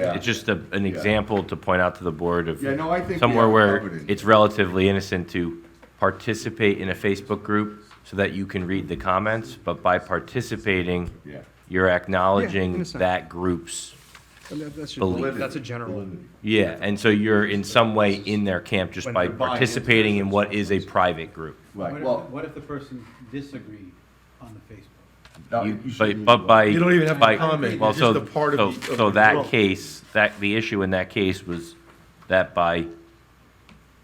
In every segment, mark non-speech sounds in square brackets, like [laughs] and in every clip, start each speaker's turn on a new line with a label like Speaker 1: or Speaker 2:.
Speaker 1: Yeah.
Speaker 2: It's just a, an example to point out to the board of
Speaker 1: Yeah, no, I think we
Speaker 2: somewhere
Speaker 1: have it
Speaker 2: where
Speaker 1: covered in-
Speaker 2: it's relatively innocent to participate in a Facebook group so that you can read the comments, but by participating,
Speaker 1: Yeah.
Speaker 2: you're acknowledging
Speaker 3: innocent.
Speaker 2: that group's,
Speaker 3: And that- That's
Speaker 2: Believe.
Speaker 3: just, that's a general.
Speaker 2: yeah, and so you're in some way in their camp just
Speaker 3: When
Speaker 2: by
Speaker 3: they're
Speaker 1: buying into
Speaker 2: participating in what is a private group.
Speaker 1: Right,
Speaker 4: What
Speaker 1: well.
Speaker 4: if, what if the person disagreed on the Facebook?
Speaker 1: no,
Speaker 2: You-
Speaker 1: you should
Speaker 2: But,
Speaker 1: leave
Speaker 2: but
Speaker 1: it
Speaker 2: by.
Speaker 5: You don't even have to
Speaker 2: by-
Speaker 5: comment,
Speaker 2: well,
Speaker 5: you're
Speaker 2: so-
Speaker 5: just a part of
Speaker 2: so-
Speaker 5: the- of
Speaker 2: So
Speaker 5: the
Speaker 2: that
Speaker 5: group.
Speaker 2: case, that, the issue in that case was that by,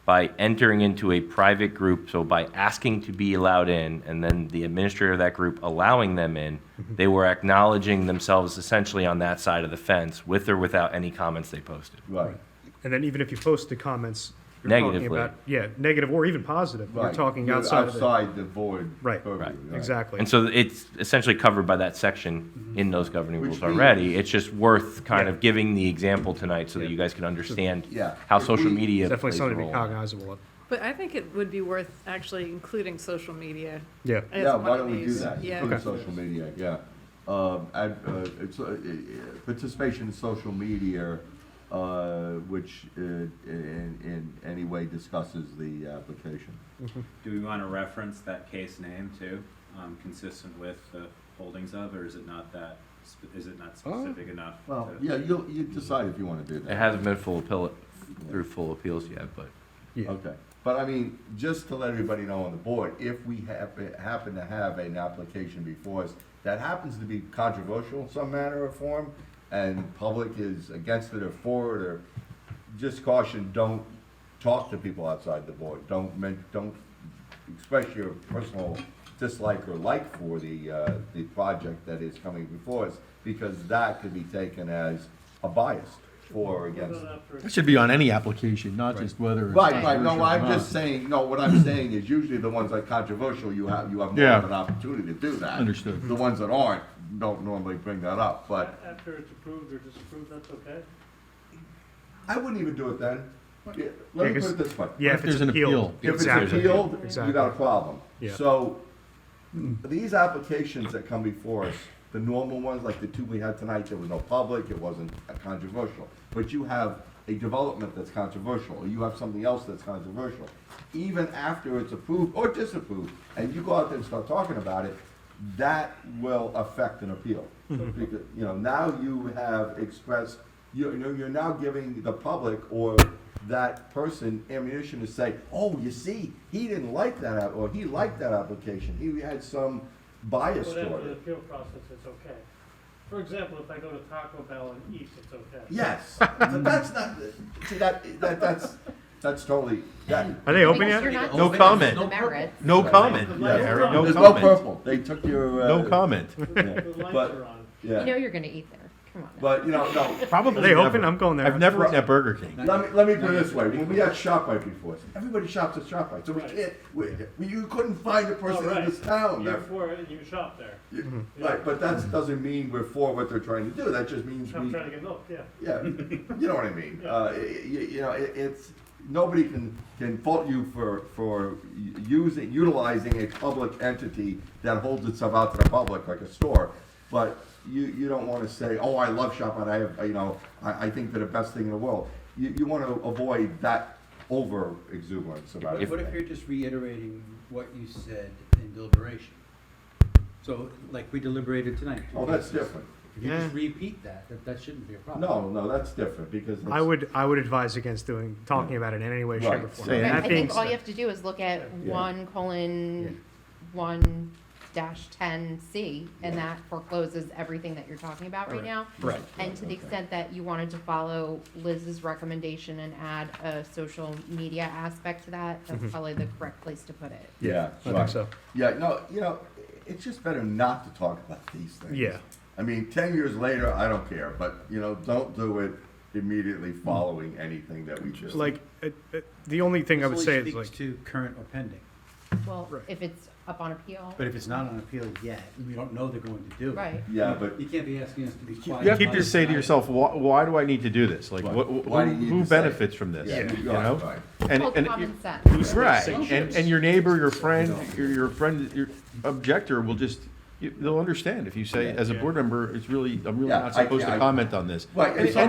Speaker 2: by entering into a private group, so by asking to be allowed in, and then the administrator of that group allowing them in,
Speaker 5: Mm-hmm.
Speaker 2: they were acknowledging themselves essentially on that side of the fence, with or without any comments they posted.
Speaker 1: Right,
Speaker 3: And then even if you post the comments, you're talking
Speaker 2: Negatively.
Speaker 3: about, yeah, negative or even positive, you're
Speaker 1: right.
Speaker 3: talking
Speaker 1: You're
Speaker 3: outside of the,
Speaker 1: Outside the void.
Speaker 3: Right.
Speaker 1: purview,
Speaker 2: Right.
Speaker 3: exactly.
Speaker 2: And so it's essentially covered by that section
Speaker 5: Mm-hmm.
Speaker 2: in those governing
Speaker 1: Which
Speaker 2: rules already.
Speaker 1: means-
Speaker 2: It's just worth kind of
Speaker 3: Yeah.
Speaker 2: giving the example tonight so that you guys can understand
Speaker 1: Yeah.
Speaker 2: how
Speaker 1: If
Speaker 2: social
Speaker 1: we-
Speaker 2: media
Speaker 3: It's definitely
Speaker 2: plays a
Speaker 3: something to
Speaker 2: role.
Speaker 3: be cognizable of.
Speaker 6: But I think it would be worth actually including social media
Speaker 3: Yeah,
Speaker 6: as
Speaker 1: Yeah,
Speaker 6: one
Speaker 1: why
Speaker 6: of
Speaker 1: don't we do
Speaker 6: these.
Speaker 1: that?
Speaker 6: Yeah.
Speaker 1: Include social media, yeah. Um, I, uh, it's, uh, participation in social media, uh, which, uh, in, in any way discusses the application.
Speaker 7: Do we want to reference that case name too, um, consistent with the holdings of, or is it not that, sp- is it not specific enough?
Speaker 1: Well,
Speaker 7: to-
Speaker 1: yeah, you'll, you decide if you wanna do that.
Speaker 2: It hasn't been full appeal, through full appeals yet, but
Speaker 3: yeah.
Speaker 1: Okay, but I mean, just to let everybody know on the board, if we happen, happen to have an application before us that happens to be controversial in some manner or form, and public is against it or for it, or just caution, don't talk to people outside the board, don't men don't express your personal dislike or like for the, uh, the project that is coming before us, because that could be taken as a bias for or against it.
Speaker 5: That should be on any application, not just whether. it's
Speaker 1: Right, right,
Speaker 5: controversial
Speaker 1: no,
Speaker 5: or
Speaker 1: I'm
Speaker 5: not.
Speaker 1: just saying, no, what I'm saying is usually the ones that are controversial, you have, you have more
Speaker 5: Yeah.
Speaker 1: of an opportunity to do that.
Speaker 5: Understood.
Speaker 1: The ones that aren't, don't normally bring that up, but
Speaker 8: After it's approved or disapproved, that's okay?
Speaker 1: I wouldn't even do it then. Yeah, Let me put it this way.
Speaker 3: Yeah, if
Speaker 5: If
Speaker 3: it's
Speaker 5: there's an
Speaker 3: appealed.
Speaker 5: appeal.
Speaker 1: If it's
Speaker 3: exactly.
Speaker 1: appealed, you
Speaker 3: Exactly.
Speaker 1: got a problem.
Speaker 3: Yeah.
Speaker 1: So, these applications that come before us, the normal ones, like the two we had tonight, there was no public, it wasn't uh, controversial. But you have a development that's controversial, or you have something else that's controversial. Even after it's approved or disapproved, and you go out there and start talking about it, that will affect an appeal.
Speaker 3: Mm-hmm.
Speaker 1: Because, You know, now you have expressed, you you know, you're now giving the public or that person ammunition to say, oh, you see, he didn't like that, app- or he liked that application, he had some bias
Speaker 8: Whatever
Speaker 1: toward
Speaker 8: the
Speaker 1: it.
Speaker 8: appeal process, it's okay. For example, if I go to Taco Bell and eat, it's okay.
Speaker 1: Yes, [laughs] but that's not, see, that, that, that's, that's totally, that.
Speaker 3: Are they open
Speaker 9: Because
Speaker 3: yet?
Speaker 9: you're not
Speaker 5: No
Speaker 9: discussing
Speaker 5: comment.
Speaker 9: The merits.
Speaker 5: No comment, yeah,
Speaker 1: Yeah.
Speaker 5: Harry, no
Speaker 1: There's no
Speaker 5: comment,
Speaker 1: purple, they took your. uh,
Speaker 5: no comment.
Speaker 1: yeah,
Speaker 8: The lights
Speaker 1: But-
Speaker 8: are on.
Speaker 9: You know
Speaker 1: Yeah,
Speaker 9: you're gonna eat there. Come on.
Speaker 1: but, you know, no,
Speaker 5: Probably
Speaker 3: Are they
Speaker 5: never.
Speaker 3: open? I'm going there.
Speaker 5: I've never eaten at Burger King.
Speaker 1: Let me, let me put it this way, when we had ShopRite before, everybody shops at ShopRite, so we
Speaker 8: Right.
Speaker 1: can't, we, we- you couldn't find a person in
Speaker 8: Alright.
Speaker 1: this
Speaker 5: Oh,
Speaker 1: town.
Speaker 8: You're
Speaker 1: that-
Speaker 8: for it and you shop there.
Speaker 1: you- Right, but
Speaker 3: Mm-hmm.
Speaker 1: that doesn't mean we're for what they're trying to do, that just means
Speaker 8: I'm
Speaker 1: we,
Speaker 8: trying to get milk, yeah.
Speaker 1: yeah, [laughs] you know what I mean? Uh, you, you know, it, it's, nobody can, can fault you for, for u- using, utilizing a public entity that holds itself out to the public, like a store, but you, you don't wanna say, oh, I love ShopRite, I have, you know, I, I think they're the best thing in the world. You, you wanna avoid that over exuberance about it.
Speaker 4: What if you're just reiterating what you said in deliberation? So, like we deliberated tonight.
Speaker 1: Oh, that's different.
Speaker 4: If you just
Speaker 3: Yeah.
Speaker 4: repeat that, that, that shouldn't be a problem.
Speaker 1: No, no, that's different, because it's.
Speaker 3: I would, I would advise against doing, talking about it in any way, shape, or
Speaker 1: Right.
Speaker 3: form.
Speaker 5: Say it.
Speaker 9: Right,
Speaker 3: That
Speaker 9: I
Speaker 3: being
Speaker 9: think all you
Speaker 3: said-
Speaker 9: have to do is look at
Speaker 1: Yeah.
Speaker 9: one
Speaker 3: Yeah.
Speaker 9: colon, one dash ten C, and that forecloses everything that you're talking about right
Speaker 3: Right.
Speaker 9: now.
Speaker 5: Right.
Speaker 9: And to the
Speaker 1: Okay.
Speaker 9: extent that you wanted to follow Liz's recommendation and add a social media aspect to that, that's probably the correct place to put it.
Speaker 1: Yeah,
Speaker 3: I
Speaker 1: right.
Speaker 3: think so.
Speaker 1: Yeah, no, you know, it's just better not to talk about these things.
Speaker 3: Yeah.
Speaker 1: I mean, ten years later, I don't care, but you know, don't do it immediately following anything that we do.
Speaker 3: Like, it- it- the only thing I would say is
Speaker 4: This only
Speaker 3: like,
Speaker 4: speaks to current or pending,
Speaker 9: Well,
Speaker 3: Right.
Speaker 9: if it's up on appeal,
Speaker 4: but if it's not on appeal yet, and we don't know they're going to do it.
Speaker 9: right.
Speaker 1: Yeah, but
Speaker 4: You can't be asking us to be quiet.
Speaker 5: You have to
Speaker 4: about
Speaker 5: just
Speaker 4: it
Speaker 5: say to
Speaker 4: tonight.
Speaker 5: yourself, why, why do I need to do this? Like,
Speaker 1: Right.
Speaker 5: what, who,
Speaker 1: Why do you need
Speaker 5: who
Speaker 1: to say it?
Speaker 5: benefits from this?
Speaker 1: Yeah,
Speaker 5: You
Speaker 1: you're right,
Speaker 5: know?
Speaker 1: right.
Speaker 5: And,
Speaker 9: Called
Speaker 5: and,
Speaker 9: common sense.
Speaker 5: right, and, and your neighbor, your friend, your, your friend, your objector will just, you- they'll understand if you say, as a board member, it's really, I'm really
Speaker 1: Yeah,
Speaker 5: not
Speaker 1: I-
Speaker 5: supposed
Speaker 1: I-
Speaker 5: to comment on this.
Speaker 1: Right, and-
Speaker 5: It's
Speaker 1: and-